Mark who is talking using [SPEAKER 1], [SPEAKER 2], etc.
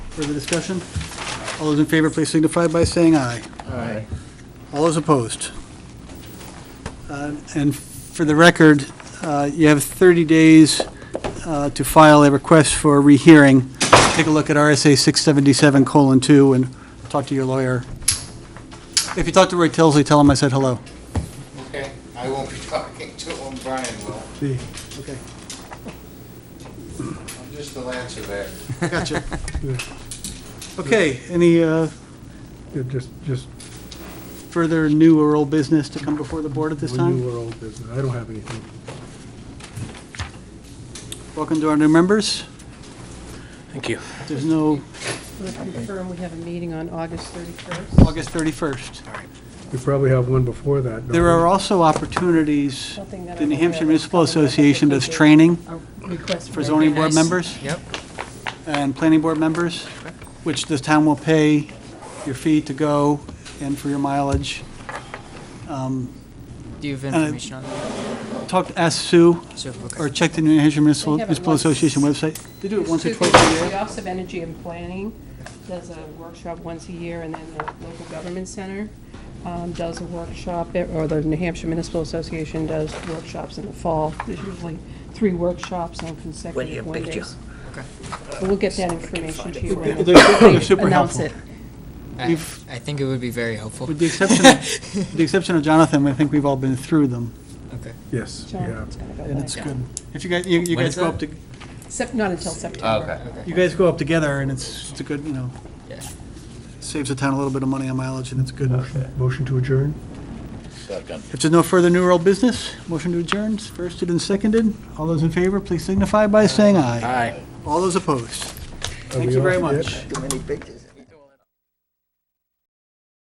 [SPEAKER 1] Further discussion? All those in favor, please signify by saying aye.
[SPEAKER 2] Aye.
[SPEAKER 1] All those opposed? Uh, And for the record, uh, you have 30 days uh, to file a request for a rehearing. Take a look at RSA 677:2 and talk to your lawyer. If you talk to Roy Tilsley, tell him I said hello.
[SPEAKER 3] Okay, I won't be talking to him, Brian will.
[SPEAKER 1] Okay.
[SPEAKER 3] I'm just the land surveyor.
[SPEAKER 1] Gotcha. Okay, any uh,
[SPEAKER 2] Yeah, Just, just,
[SPEAKER 1] further new or old business to come before the board at this
[SPEAKER 2] when
[SPEAKER 1] time?
[SPEAKER 2] you uh, were old business, I don't have anything.
[SPEAKER 1] Welcome to our new members.
[SPEAKER 4] Thank you.
[SPEAKER 1] If There's no
[SPEAKER 5] We'll confirm we have a meeting on August 31st.
[SPEAKER 1] August 31st.
[SPEAKER 2] We probably have one before that. don't
[SPEAKER 1] There
[SPEAKER 2] we?
[SPEAKER 1] are also opportunities,
[SPEAKER 5] Something that I
[SPEAKER 1] the New
[SPEAKER 5] don't
[SPEAKER 1] Hampshire
[SPEAKER 5] have.
[SPEAKER 1] Municipal Association does training
[SPEAKER 5] A request
[SPEAKER 1] for zoning board
[SPEAKER 4] nice.
[SPEAKER 1] members
[SPEAKER 4] Yep.
[SPEAKER 1] and planning board members, which the town will pay your fee to go and for your mileage. Um,
[SPEAKER 4] Do you have information on that?
[SPEAKER 1] Talk, to ask Sue,
[SPEAKER 4] So, okay.
[SPEAKER 1] or check the New Hampshire Municipal
[SPEAKER 5] They have it
[SPEAKER 1] Municipal
[SPEAKER 5] once.
[SPEAKER 1] Association website. They do it once or
[SPEAKER 5] Two things.
[SPEAKER 1] twice a year.
[SPEAKER 5] The Office of Energy and Planning does a workshop once a year, and then the local government center um, does a workshop, e- or the New Hampshire Municipal Association does workshops in the fall. There's usually three workshops on consecutive one days.
[SPEAKER 4] Okay.
[SPEAKER 5] But We'll get that information to you when
[SPEAKER 1] They're super- they're
[SPEAKER 5] they
[SPEAKER 1] super
[SPEAKER 5] announce
[SPEAKER 1] helpful.
[SPEAKER 5] it.
[SPEAKER 4] I,
[SPEAKER 1] We've-
[SPEAKER 4] I think it would be very helpful.
[SPEAKER 1] With the exception, with the exception of Jonathan, I think we've all been through them,
[SPEAKER 4] Okay.
[SPEAKER 2] Yes, we
[SPEAKER 5] So
[SPEAKER 2] have.
[SPEAKER 5] it's gonna go
[SPEAKER 1] and it's
[SPEAKER 5] back.
[SPEAKER 1] good. If you guys, you you
[SPEAKER 4] When
[SPEAKER 1] guys
[SPEAKER 4] is
[SPEAKER 1] go
[SPEAKER 4] that?
[SPEAKER 1] up to,
[SPEAKER 5] Sep- Not until September.
[SPEAKER 1] you guys go up together, and it's, it's a good, you know,
[SPEAKER 4] Yeah.
[SPEAKER 1] saves the town a little bit of money on mileage, and it's good.
[SPEAKER 2] Motion- Motion to adjourn?
[SPEAKER 1] If there's no further new or old business, motion to adjourn, is firsted and seconded. All those in favor, please signify by saying aye. Aye. All those opposed.
[SPEAKER 2] Are
[SPEAKER 1] Thank
[SPEAKER 2] we
[SPEAKER 1] you very
[SPEAKER 2] off yet?
[SPEAKER 1] much.
[SPEAKER 6] Too many pictures.